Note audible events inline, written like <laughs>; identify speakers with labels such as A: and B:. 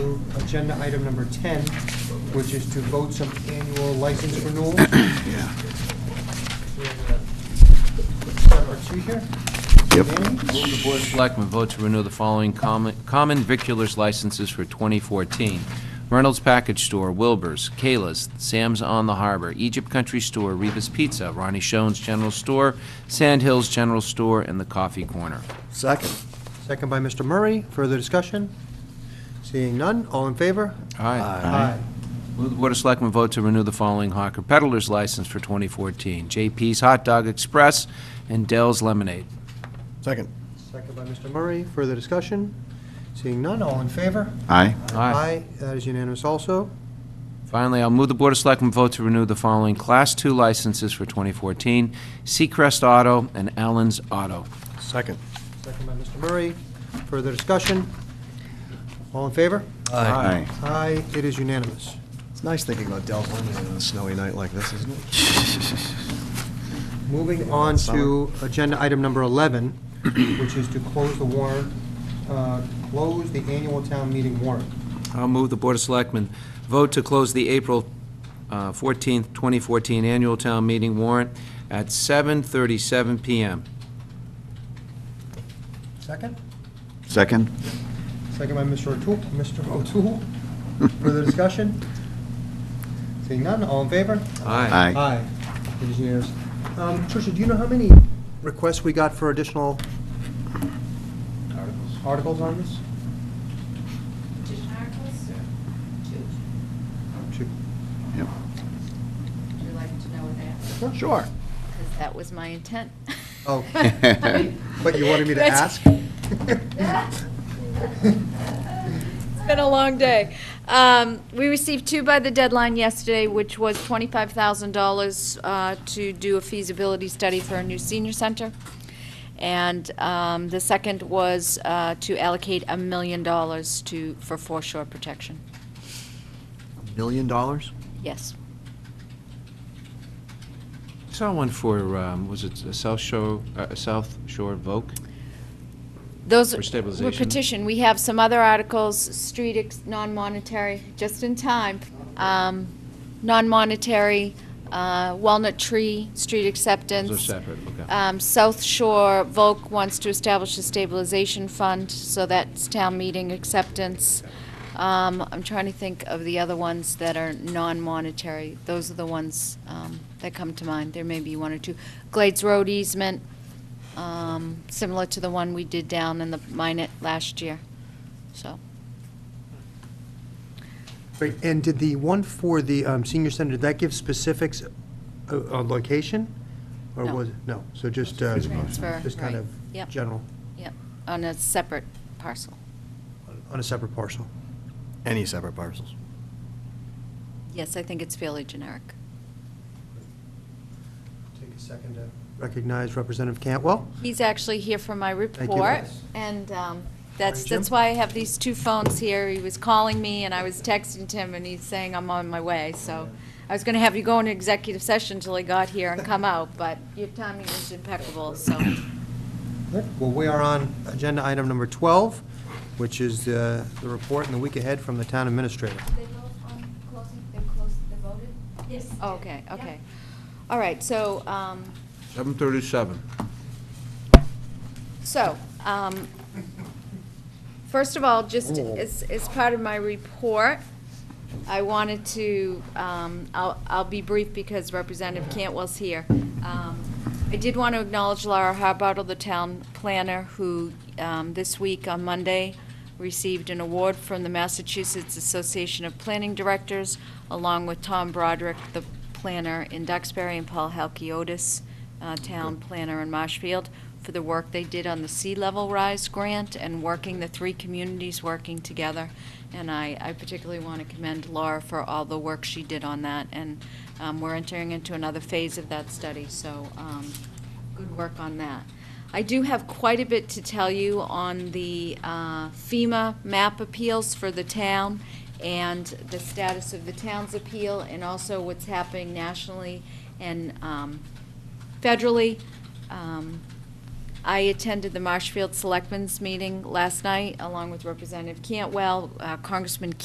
A: agenda item number 10, which is to vote some annual license renewals.
B: Yeah.
A: We have, uh, Start our two here.
B: Yep.
A: Danny?
C: Move the Board of Selectmen vote to renew the following common common viculars licenses for 2014. Reynolds Package Store, Wilbur's, Kayla's, Sam's on the Harbor, Egypt Country Store, Reva's Pizza, Ronnie Schoen's General Store, Sand Hills General Store, and The Coffee Corner.
B: Second.
A: Second by Mr. Murray. Further discussion? Seeing none, all in favor?
C: Aye.
A: Aye.
C: Move Uh, the Board of Selectmen vote to renew the following hawker Peddlers license for 2014. JP's Hot Dog Express and Dell's Lemonade.
B: Second.
A: Second by Mr. Murray. Further discussion? Seeing none, all in favor?
B: Aye.
A: Aye. That is unanimous also.
C: Finally, I'll move the Board of Selectmen vote to renew the following Class II licenses for 2014, Seacrest Auto and Allen's Auto.
B: Second.
A: Second by Mr. Murray. Further discussion? All in favor?
B: Aye.
A: Aye, it is unanimous.
B: It's nice thinking about Dell Lemonade on a snowy night like this, isn't it?
A: Moving on to agenda item number 11, which is to close the warrant, uh, close the annual town meeting warrant.
C: I'll move the Board of Selectmen vote to close the April uh, 14th, 2014 Annual Town Meeting warrant at 7:37 PM.
A: Second?
D: Second?
A: Second by Mr. O'Toole. Mr. O'Toole, further discussion? Seeing none, all in favor?
C: Aye.
A: Aye. It is unanimous. Um, Tricia, do you know how many requests we got for additional articles on this?
E: Petition articles or two?
A: Two.
D: Yep.
E: Would you like to know that?
A: <laughs>
B: Sure.
E: Because that was my intent.
A: Oh.
D: But
A: <laughs> But you wanted me to
E: That's- <laughs>
A: ask? <laughs>
E: It's been a long day. Um, We received two by the deadline yesterday, which was $25,000 uh, to do a feasibility study for a new senior center. And um, the second was uh, to allocate a million dollars to, for foreshore protection.
B: Million dollars?
E: Yes.
C: Saw one for, um, was it a South Shore, uh, South Shore Voc?
E: Those
C: For
E: were
C: stabilization.
E: petition. We have some other articles, street, ex- non-monetary, just in time. Um, Non-monetary, uh, Walnut Tree, street acceptance.
C: Those are separate, okay.
E: Um, South Shore Volk wants to establish a stabilization fund, so that's town meeting acceptance. Um, I'm trying to think of the other ones that are non-monetary. Those are the ones um, that come to mind. There may be one or two. Glades Road easement, um, similar to the one we did down in the Minnet last year, so.
A: Great, and did the one for the um, senior center, did that give specifics uh, on location? Or
E: No.
A: was, it no, so just, uh,
E: Transfer,
A: just kind
E: right.
A: of
E: Yep.
A: general,
E: Yep, on a separate parcel.
A: on a separate parcel?
B: Any separate parcels?
E: Yes, I think it's fairly generic.
A: Take a second to recognize Representative Cantwell.
E: He's actually here for my
A: you.
E: report, and um, that's,
A: Morning, Jim.
E: that's why I have these two phones here. He was calling me, and I was texting him, and he's saying I'm on my way, so I was gonna have you go into executive session until he got here and come out, but your timing was impeccable, so.
A: Well, we are on agenda item number 12, which is uh, the report in the week ahead from the town administrator.
F: They vote on closing, they closed, they voted? Oh, Yes.
E: Okay, okay. All right, so, um,
C: 7:37.
E: So, um, first of all, just as, as part of my report, I wanted to, um, I'll, I'll be brief because Representative Cantwell's here. Um, I did want to acknowledge Laura Harbottle, the town planner, who, um, this week on Monday, received an award from the Massachusetts Association of Planning Directors, along with Tom Broderick, the planner in Duxbury, and Paul Halkiotis, uh, town planner in Marshfield, for the work they did on the sea level rise grant and working, the three communities working together. And I, I particularly want to commend Laura for all the work she did on that. And um, we're entering into another phase of that study, so um, good work on that. I do have quite a bit to tell you on the uh, FEMA map appeals for the town and the status of the town's appeal and also what's happening nationally and um, federally. Um, I attended the Marshfield Selectmen's meeting last night along with Representative Cantwell, uh, Congressman